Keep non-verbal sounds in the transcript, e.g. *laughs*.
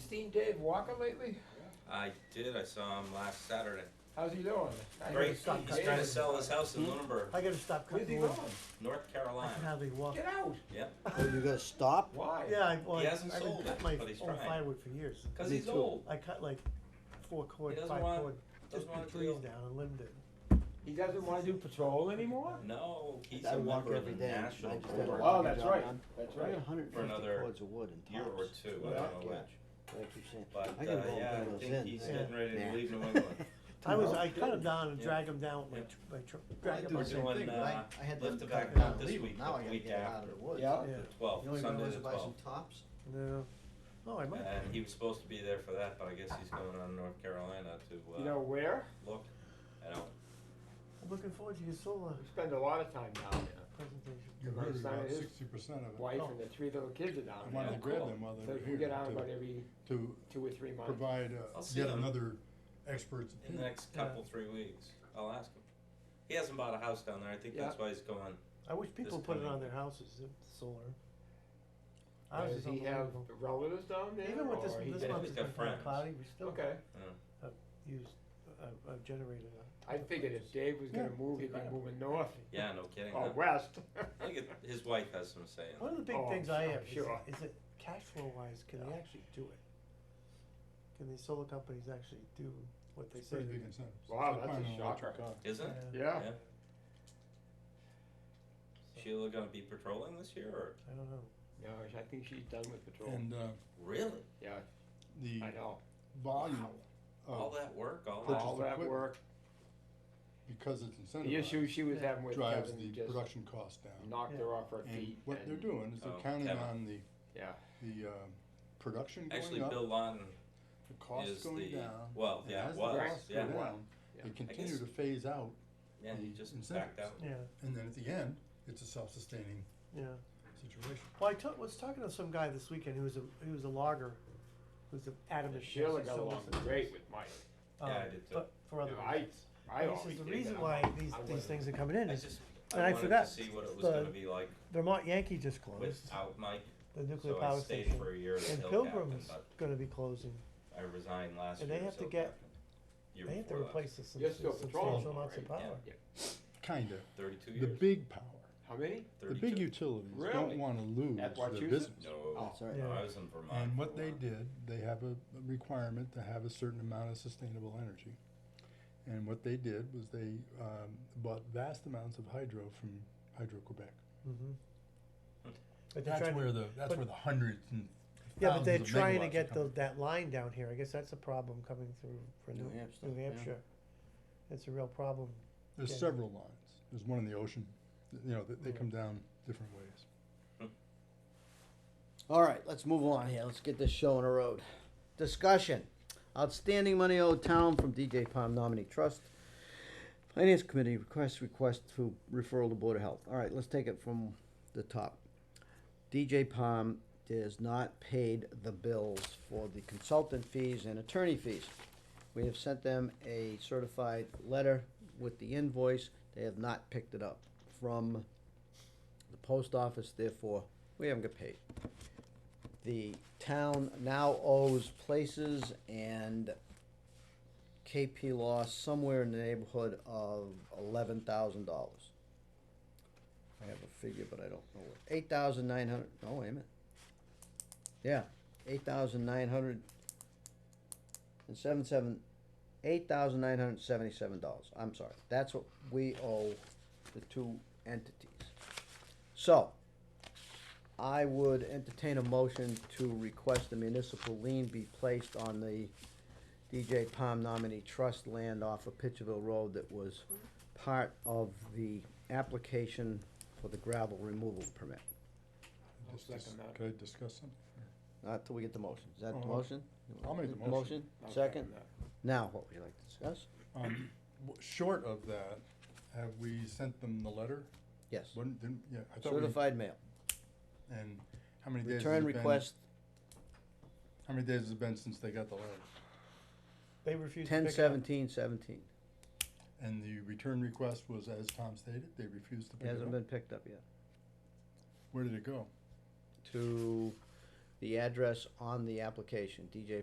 seen Dave Walker lately? I did, I saw him last Saturday. How's he doing? I Great, haven't he's seen trying Dave. to sell his house Hmm? in Lunenburg, I gotta stop Where's he cutting going? wood. North I can Carolina. hardly walk. Get out. Yep, Oh, you gotta stop? Why? Yeah, I, well, He I- hasn't I've sold been it, cutting my but he's own trying. firewood for years. because Me he's too. old. I cut like four cord, doesn't five want- cord, doesn't just want the to trees deal. down and limbed it. He doesn't wanna do patrol anymore? No, he's I a walk member of the every day. I National just had a walk. Board. walking that's job right. done. That's I right. got hundred and For fifty another cords of wood and tops. Year or two, I Yeah. don't know Yeah. which. Like you said, But, I uh, can roll yeah, I those think in. he's Yeah. getting ready to Yeah. *laughs* leave New England. I was, know? I cut them down and Yeah. dragged them down with my, Yeah. tr- my tr- I dragged do them We're the up. same doing, thing, but uh, I, I lift had them the cut back down out and this leave 'em. week, Now the I gotta week get 'em out of after. the woods. Yeah. Yeah, Well, The only one Sunday was the to buy some twelfth. tops. no, oh, I might. And he was supposed to be there for that, but I guess he's going on North Carolina You to, know uh, where? look. I don't, I'm looking forward to your solar We spend a lot of time down there. presentation. You Well, heard it's not about his sixty percent of it. Oh. Wife and the three little kids are down I there. wanted to grab them while So they were we here get out to, about every to two or three months. provide I'll uh, see yet them. another expert's in the opinion. next couple, three weeks, I'll ask him. He hasn't bought a house down there, I think Yeah. that's why he's going. I wish people put it coming- on their houses, uh, solar. Ours Does is he have unbelievable. relatives down there? Even with this, or he this did. just- month He's has got been kind of friends. cloudy, we still Okay, use uh, a, a generator. I figured if Dave was gonna Yeah. move, he'd be moving north *laughs* Yeah, no kidding. or Oh, huh? west. I think it- his wife has some say in it. One of the big Oh, things I I'm have is, sure. is that cash flow wise, can they actually do it? Can these solar companies actually do what they It's say? pretty they're big gonna- incentives. It's Wow, like that's a buying an electric shocker. car. Is it? Yeah, *laughs* Yeah, Yeah. Sheila gonna be patrolling this year or? I don't know. no, I think she's done with patrol. And, uh, Really? Yeah, the I know. volume All of, that work, all Purchase All that? that *laughs* equipment. work, because it's the issue incentivized, she was having with drives Kevin the just production cost down. knocked her off her And feet what they're and, doing is they're Oh, counting Kevin. on the, yeah, the, uh, production Actually, going up, Bill Lawton the cost is going the, down. well, and yeah, as the was, costs go yeah, down, Yeah. I They guess- continue to phase out, yeah, he the just incentives. backed out. Yeah, and then at the end, it's a self-sustaining yeah. situation. Well, I ta- was talking to some guy this weekend who was a, who was a logger, who's an adamant. against Sheila got solar along systems, great with Mike. Yeah, I um, did too. But for other I, reasons. I And always He says did, the but reason I'm why not- these, I these wasn't- things are coming in I is just, And I I wanted to forgot see what it was the- gonna be like Vermont Yankee just closed, without Mike, the nuclear so I power stayed station. for a year as And hill captain, Pilgrim's but gonna be closing. I resigned last year and they as have to hill get- captain. Year They have to before last, replace this You're still patrolling, substantial amounts of right? power. Yeah. Kinda, Thirty-two the years, big power, How many? thirty-two. the big utilities Really? don't wanna lose At their Wachusett? business. No, That's all right. no, Yeah. I was in Vermont. Oh, And for a what they while. did, they have a a requirement to have a certain amount of sustainable energy. And what they did was they um, bought vast amounts of hydro from Hydro Quebec. Mhm. But they're That's trying, where the, that's but- where the hundreds and yeah, but they're thousands of trying to megawatts are get coming. those, that line down here, I guess that's a problem coming through for New New, Hampshire, New yeah. Hampshire. It's a real problem, There's Okay. several lines. There's one in the ocean, th- you know, that they Yeah. come down different ways. All right, let's move on here. Let's get this show on the road. Discussion. Outstanding money owed town from DJ Palm Nominee Trust. Finance Committee requests request to referral to Board of Health. All right, let's take it from the top. DJ Palm is not paid the bills for the consultant fees and attorney fees. We have sent them a certified letter with the invoice. They have not picked it up from the post office, therefore, we haven't got paid. The town now owes places and KP Law somewhere in the neighborhood of eleven thousand dollars. I have a figure, but I don't know what, eight thousand nine hundred, no, wait a minute. Yeah, eight thousand nine hundred and seven seven, eight thousand nine hundred seventy-seven dollars, I'm sorry, that's what we owe the two entities. So, I would entertain a motion to request a municipal lien be placed on the DJ Palm nominee trust land off of Pitcherville Road that was part of the application for the gravel removal permit. I'll Just dis- second that. Could I discuss something? Not till we get the motion. Is that Oh, the okay. motion? I'll make the motion. I'll Second? that. Now, what would you like to discuss? Um, w- Short of that, have we sent them the letter? Yes. Wouldn't, didn't, yeah, I thought we, Certified mail. and how many days has Return it been? request How many days has it been since they got the letter? they refuse to pick it up. ten seventeen seventeen. And the return request was, as Tom stated, they refused to pick it Hasn't up. been picked up yet. Where did it go? To the address on the application, DJ